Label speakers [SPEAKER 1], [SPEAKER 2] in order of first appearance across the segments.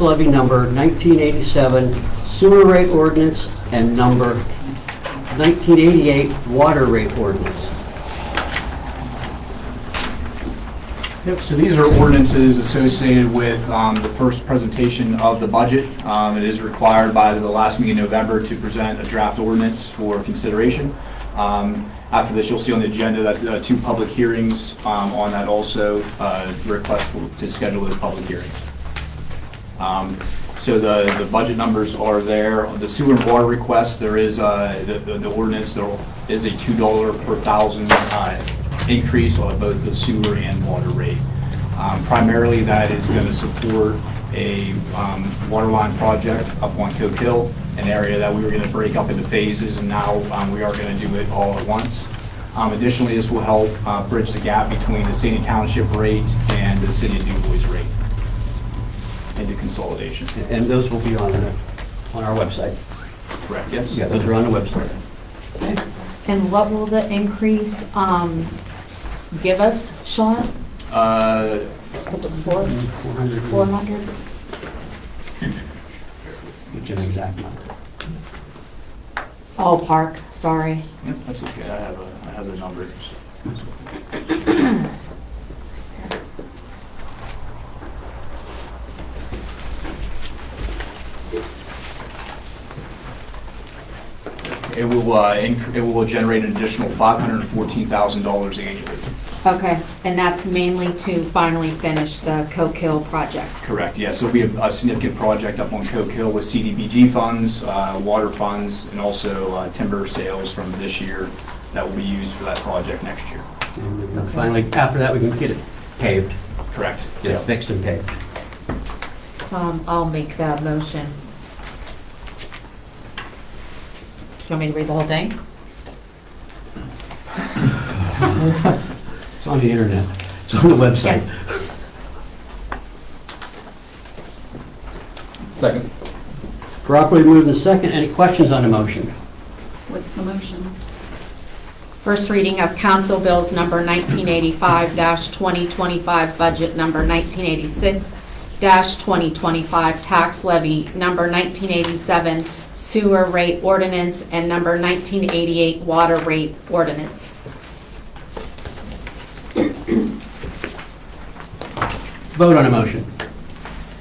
[SPEAKER 1] levy number 1987 sewer rate ordinance and number 1988 water rate ordinance.
[SPEAKER 2] Yep, so these are ordinances associated with um, the first presentation of the budget. Um, It is required by the last meeting in November to present a draft ordinance for consideration. Um, After this, you'll see on the agenda that uh, two public hearings um, on that also, uh, request for- to schedule those public hearings. Um, So the, the budget numbers are there. On The sewer and water request, there is, uh, the the- the ordinance, there is a $2 per thousand uh, increase on both the sewer and water rate. Um, Primarily, that is going to support a um, water line project up on Coe Hill, an area that we were going to break up into phases, and now um, we are going to do it all at once. Um, Additionally, this will help uh, bridge the gap between the city township rate and the city of DuBois rate into consolidation.
[SPEAKER 1] And those will be on, the- on our website.
[SPEAKER 2] Correct, yes?
[SPEAKER 1] Yeah, those are on the website.
[SPEAKER 3] And what will the increase um, give us, Sean?
[SPEAKER 2] Uh,
[SPEAKER 3] Was it four,
[SPEAKER 1] 400.
[SPEAKER 3] 400?
[SPEAKER 1] Which is an exact number.
[SPEAKER 3] Oh, park, sorry.
[SPEAKER 2] yep, That's okay, I have, a- I have the numbers. It will, uh, inc- it will generate an additional $514,000 annually.
[SPEAKER 3] Okay, and that's mainly to finally finish the Coke Hill project.
[SPEAKER 2] Correct, yeah, so we have a significant project up on Coke Hill with CDBG funds, uh, water funds, and also uh, timber sales from this year that will be used for that project next year.
[SPEAKER 1] And we can Finally, after that, we can get it paved,
[SPEAKER 2] Correct?
[SPEAKER 1] get it fixed and paved.
[SPEAKER 3] Um, I'll make that motion. Do you want me to read the whole thing?
[SPEAKER 1] It's on the internet. It's on the website.
[SPEAKER 2] Second.
[SPEAKER 1] Properly moved and second. Any questions on the motion?
[SPEAKER 3] What's the motion? First reading of council bills number 1985-2025, budget number 1986-2025, tax levy number 1987, sewer rate ordinance, and number 1988, water rate ordinance.
[SPEAKER 1] Vote on the motion.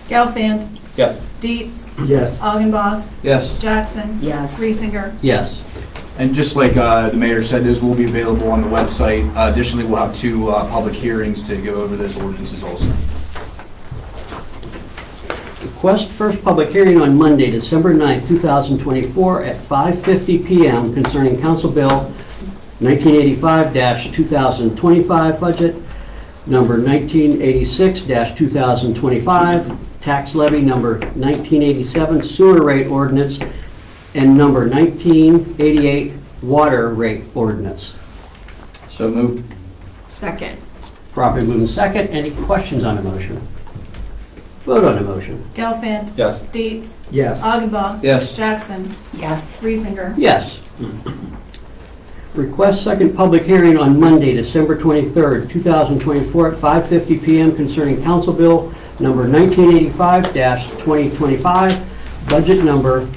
[SPEAKER 4] Gelfand.
[SPEAKER 2] Yes.
[SPEAKER 4] Dietz.
[SPEAKER 1] Yes.
[SPEAKER 4] Uh, Augenbaugh.
[SPEAKER 1] Yes.
[SPEAKER 4] Jackson.
[SPEAKER 3] Yes.
[SPEAKER 4] Reesinger.
[SPEAKER 1] Yes.
[SPEAKER 2] And just like uh, the mayor said, those will be available on the website. Uh, Additionally, we'll have two uh, public hearings to go over those ordinances also.
[SPEAKER 1] Request first public hearing on Monday, December 9th, 2024, at 5:50 PM concerning Council Bill 1985-2025 budget, number 1986-2025, tax levy number 1987 sewer rate ordinance, and number 1988 water rate ordinance.
[SPEAKER 2] So moved.
[SPEAKER 3] Second.
[SPEAKER 1] Properly moved and second. Any questions on the motion? Vote on the motion.
[SPEAKER 4] Gelfand.
[SPEAKER 2] Yes.
[SPEAKER 4] Dietz.
[SPEAKER 1] Yes.
[SPEAKER 4] Augenbaugh.
[SPEAKER 1] Yes.
[SPEAKER 4] Jackson.
[SPEAKER 3] Yes.
[SPEAKER 4] Reesinger.
[SPEAKER 1] Yes. Request second public hearing on Monday, December 23rd, 2024, at 5:50 PM concerning Council Bill Number 1985-2025, Budget Number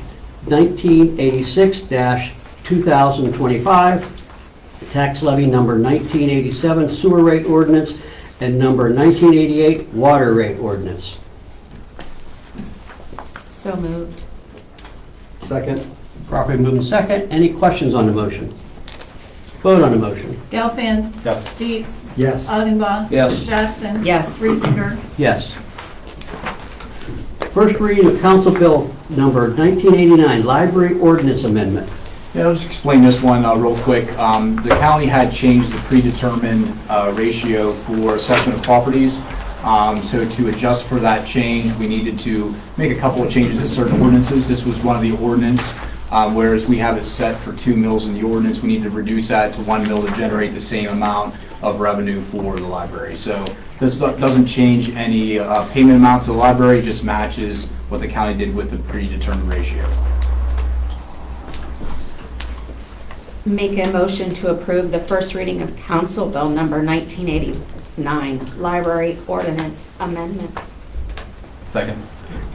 [SPEAKER 1] 1986-2025, Tax Levy Number 1987 Sewer Rate Ordinance, and Number 1988 Water Rate Ordinance.
[SPEAKER 3] So moved.
[SPEAKER 1] Second. Properly moved and second. Any questions on the motion? Vote on the motion.
[SPEAKER 4] Gelfand.
[SPEAKER 2] Yes.
[SPEAKER 4] Dietz.
[SPEAKER 1] Yes.
[SPEAKER 4] Uh, Augenbaugh.
[SPEAKER 1] Yes.
[SPEAKER 4] Jackson.
[SPEAKER 3] Yes.
[SPEAKER 4] Reesinger.
[SPEAKER 1] Yes. First reading of Council Bill Number 1989, Library Ordinance Amendment.
[SPEAKER 2] Yeah, I'll just explain this one uh, real quick. Um, The county had changed the predetermined uh, ratio for assessment of properties. Um, So to adjust for that change, we needed to make a couple of changes to certain ordinances. This was one of the ordinance, um, whereas we have it set for two mills in the ordinance, we need to reduce that to one mill to generate the same amount of revenue for the library. So this do- doesn't change any uh, payment amount to the library, just matches what the county did with the predetermined ratio.
[SPEAKER 3] Make a motion to approve the first reading of council bill number 1989, library ordinance amendment.
[SPEAKER 2] Second.